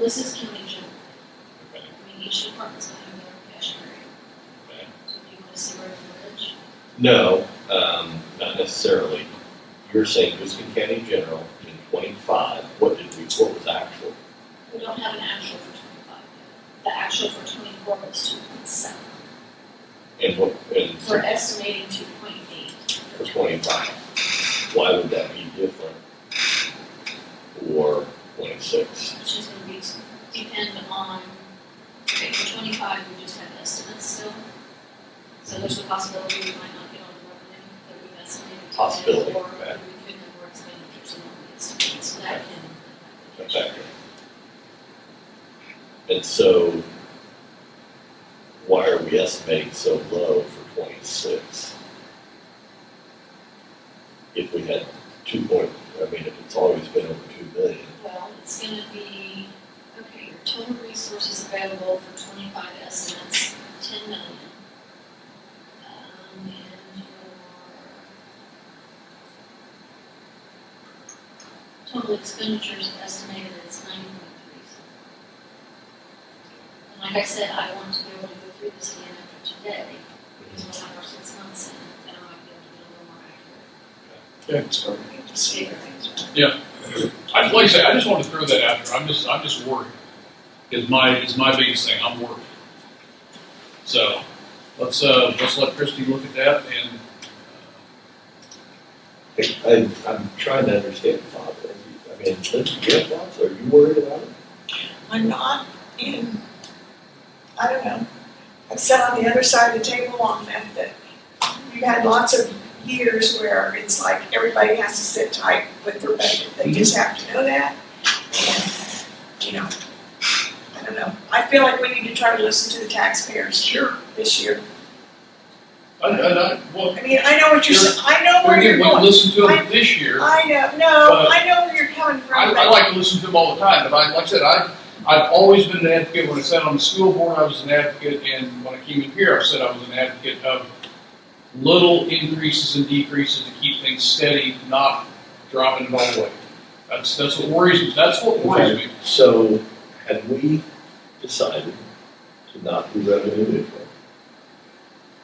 this is County General. Okay. I mean, each department's gonna have their own cash area. Okay. So if you wanna see where the village, No, um, not necessarily. You're saying Houston County General in twenty-five, what did we, what was actual? we don't have an actual for twenty-five. The actual for twenty-four was two point seven. And what, and We're for estimating two point eight. twenty-five, why would that be different? Or twenty-six? Which is gonna be, depend on, okay, for twenty-five, we just have estimates still. So there's a possibility we might not get all the revenue that we've estimated. to get, Possibility, Or we okay. could have more expenditures than what we estimated, so that can. Exactly. And so, why are we estimating so low for twenty-six? If we had two point, I mean, if it's always been over two million, Well, it's gonna be, okay, your total resources available for twenty-five estimates, ten million. Um, and your total expenditures estimated is nine point three. And like I said, I want to be able to go through this again after today, because we're on our six months in, and I might be able to get a little more accurate. Yeah. To see where things are. I, like I say, I just wanted to throw that out there. I'm just, I'm just worried. Is my, is my biggest thing. I'm worried. So let's, uh, let's let Christie look at that and, I, I'm trying to understand, Bob, I mean, Lindsay, you have thoughts? are you worried about it? I'm not in, I don't know, I've sat on the other side of the table on that, that you had lots of years where it's like everybody has to sit tight with their budget, they just Mm-hmm. have to know that. And, you know, I don't know, I feel like we need to try to listen to the taxpayers sure. this year. uh, I, I, I, well, I mean, I know what you're, s- I know where we you're didn't going, listen to them this year. I know, no, But- I know where you're coming I, from, I but like to listen to them all the time, but I, like I said, I, I've always been an advocate, when I sat on the school board, I was an advocate, and when I came in here, I said I was an advocate of little increases and decreases to keep things steady, not dropping it all the way. That's, that's what worries me, that's what worries me. So, had we decided to not be revenue neutral,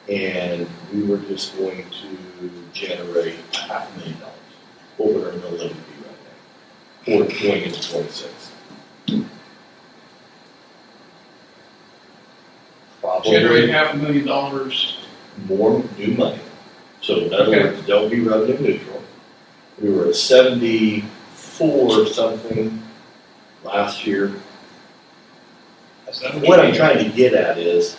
and we were just going to generate a half a million dollars, what would our mill levy be right now? Or going into twenty-six? Generate Probably half a million dollars, more new money, so in other Okay. words, don't be revenue neutral. We were at seventy-four something last year, is that what what you I'm mean? trying to get at is,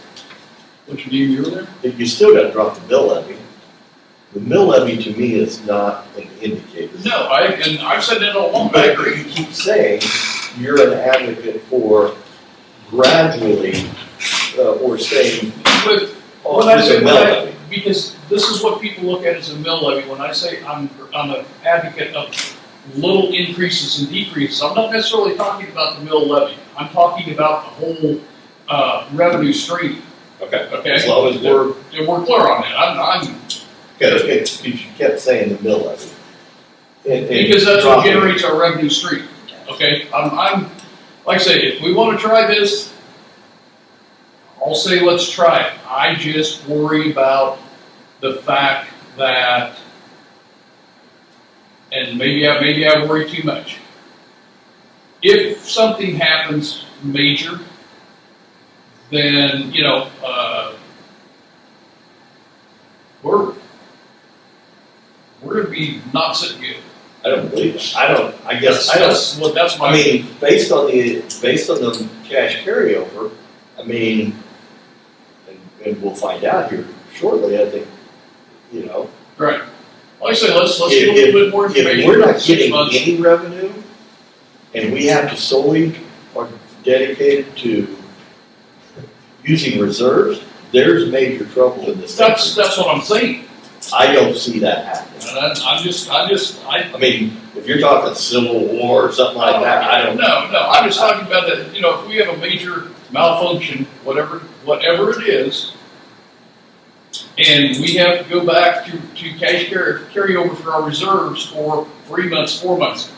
What you mean, you were there? that you still gotta drop the mill levy. The mill levy to me is not an indicator. No, I, and I've said that all along, but I But agree. you keep saying you're an advocate for gradually, uh, or saying, But oh, Well, that's it's a it, mill but I- levy. because this is what people look at as a mill levy. When I say I'm, I'm an advocate of little increases and decreases, I'm not necessarily talking about the mill levy. I'm talking about the whole uh, revenue stream. Okay. As Okay, long as we're, and we're clear on that. I'm, I'm okay, because you kept saying the mill levy. And- and because that's what dropping- generates our revenue stream. Okay, I'm, I'm like I say, if we want to try this, I'll say let's try it. I just worry about the fact that, and maybe I maybe I worry too much. If something happens major, then you know uh, we're we're gonna be not sitting good. I don't believe it. I don't, I guess, I don't That's what, that's I my, mean, based on the, based on the cash carryover, I mean, and, and we'll find out here shortly, I think, you know. right. Like I say, let's, let's get a If- little bit more If information. we're not Six getting months. any revenue, and we have to solely are dedicated to using reserves, there's major trouble in this That's, country. that's what I'm saying. I don't see that happening. And I, I'm just, I just, I. I mean, if you're talking civil war or something like that, I don't, No, no, I'm just talking about that, you know, if we have a major malfunction, whatever, whatever it is, and we have to go back to, to cash carry, carryover for our reserves for three months, four months,